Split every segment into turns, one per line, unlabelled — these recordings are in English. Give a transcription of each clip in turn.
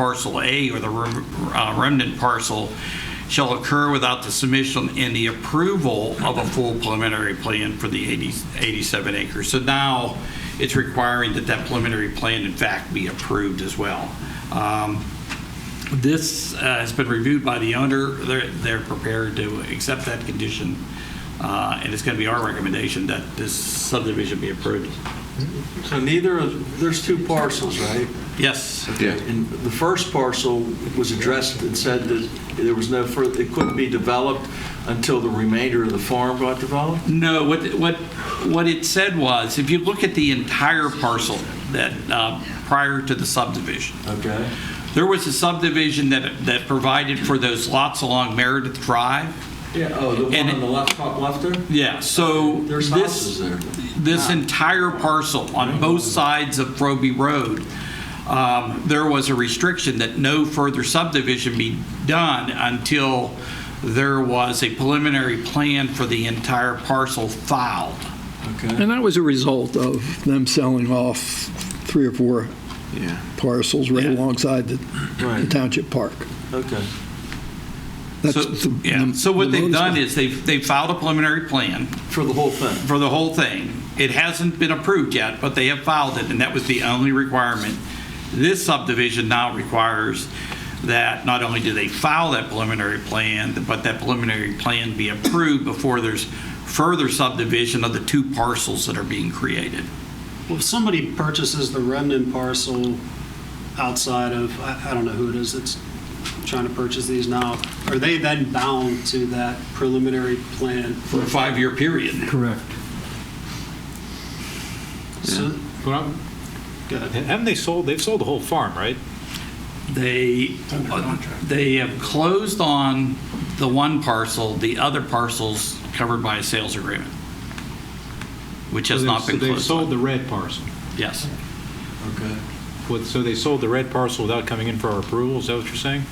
parcel A or the rem- uh, remnant parcel shall occur without the submission and the approval of a full preliminary plan for the 80 87 acres. So now it's requiring that that preliminary plan in fact be approved as well. Um, This uh, has been reviewed by the owner. They're, they're prepared to accept that condition. uh, And it's going to be our recommendation that this subdivision be approved.
So neither of, there's two parcels, right?
Yes.
Yeah.
And the first parcel was addressed and said that there was no further, it couldn't be developed until the remainder of the farm got developed?
No, what, what, what it said was, if you look at the entire parcel that, uh, prior to the subdivision,
Okay.
there was a subdivision that, that provided for those lots along Meredith Drive.
Yeah, oh, the
And
one
it-
on the left, top left there?
Yeah, so
There's
this,
houses there.
this entire parcel on both sides of Frobe Road, um, there was a restriction that no further subdivision be done until there was a preliminary plan for the entire parcel filed.
Okay.
And that was a result of them selling off three or four
Yeah.
parcels right
Yeah.
alongside the the
Right.
township park.
Okay.
That's
So,
the-
yeah,
the-
so what
the
they've
notice-
done is they've, they've filed a preliminary plan
For the whole thing?
for the whole thing. It hasn't been approved yet, but they have filed it, and that was the only requirement. This subdivision now requires that not only do they file that preliminary plan, but that preliminary plan be approved before there's further subdivision of the two parcels that are being created.
Well, if somebody purchases the remnant parcel outside of, I I don't know who it is that's trying to purchase these now, are they then bound to that preliminary plan?
For a five-year period.
Correct.
So,
Well,
go ahead.
Haven't they sold, they've sold the whole farm, right?
They, uh, they have closed on the one parcel, the other parcel's covered by a sales agreement, which has
So
not
they've-
been
They've
closed
sold
on.
the red parcel.
Yes.
Okay.
What- So they sold the red parcel without coming in for our approval, is that what you're saying?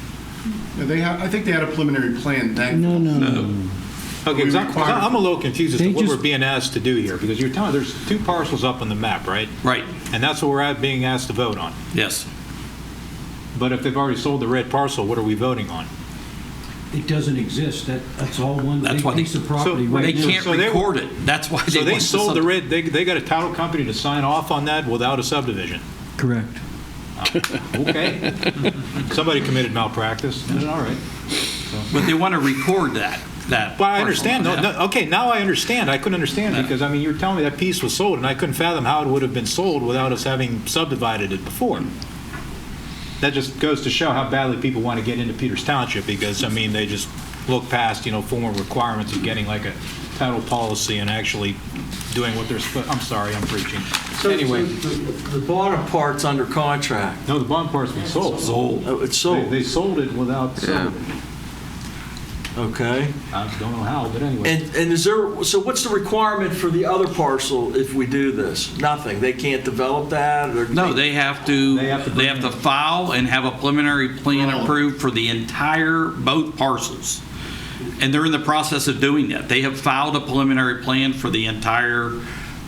Yeah, They have, I think they had a preliminary plan then.
No, no, no.
Okay, because I'm 'cause
require-
I'm a little confused as to
They
what we're
just-
being asked to do here, because you're telling, there's two parcels up on the map, right?
Right,
And that's what we're at- being asked to vote on.
yes.
But if they've already sold the red parcel, what are we voting on?
It doesn't exist. That, that's all one
That's
big
why they-
piece of property
so
They
right now.
can't
So they-
record it. That's why they
So
want
they
the
sold the
sub-
red, they, they got a title company to sign off on that without a subdivision.
Correct.
Okay. Somebody committed malpractice, then all right.
But they want to record that, that.
Well, I
parcel.
understand. No,
Yeah.
no, okay, now I understand. I couldn't understand because, I mean, you were telling me that piece was sold, and I couldn't fathom how it would have been sold without us having subdivided it before. That just goes to show how badly people want to get into Peters Township because, I mean, they just look past, you know, formal requirements of getting like a title policy and actually doing what they're supposed, I'm sorry, I'm preaching.
So-
Anyway,
so The the bottom part's under contract.
no, the bond part's been sold. Sold.
Oh, it's
They
sold,
sold it without subdivision.
okay.
I don't know how, but anyway.
And, and is there, so what's the requirement for the other parcel if we do this? Nothing? They can't develop that or?
No, they have to,
They have to
they have to
bring-
file and have a preliminary plan approved for the entire, both parcels. And they're in the process of doing that. They have filed a preliminary plan for the entire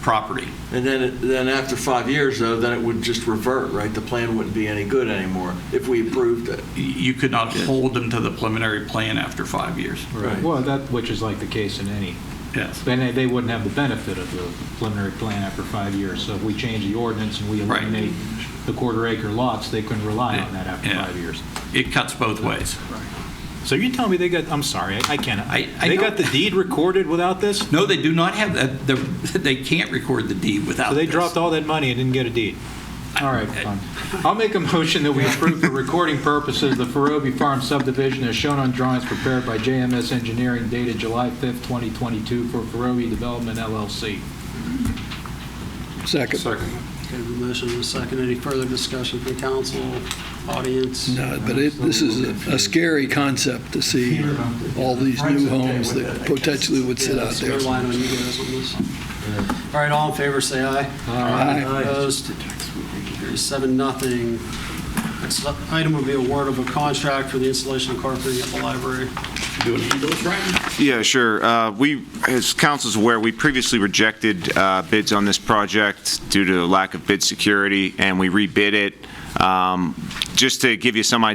property.
And then, it- then after five years, though, then it would just revert, right? The plan wouldn't be any good anymore if we approved it.
You could not hold them to the preliminary plan after five years.
Right.
Well, that, which is like the case in any
Yes.
Then they- they wouldn't have the benefit of the preliminary plan after five years. So if we change the ordinance and we
Right.
eliminate the quarter acre lots, they couldn't rely on that after
Yeah.
five years.
It cuts both ways.
So you're telling me they got, I'm sorry, I- I can't,
I- I
they
don't-
got the deed recorded without this? So
No, they do not have, that. the- they can't record the deed without
they
this.
dropped all that money and didn't get a deed? All right, fine. I'll make a motion that we approve for recording purposes the Farobie Farm subdivision as shown on drawings prepared by JMS Engineering dated July 5th, 2022 for Farobie Development LLC.
Second.
Okay, the motion was second. Any further discussion from council, audience?
No, but it, this is a- a scary concept to see all these new homes that potentially would sit
Yeah,
out
so
there.
we're relying on you guys on this. All right, all in favor, say aye.
Aye.
Opposed? Seven, nothing. next item would be award of a contract for the installation of carpeting at the library.
Do it, do it right.
Yeah, sure. Uh, We, as council's aware, we previously rejected uh, bids on this project due to lack of bid security, and we rebid it. Um, Just to give you some idea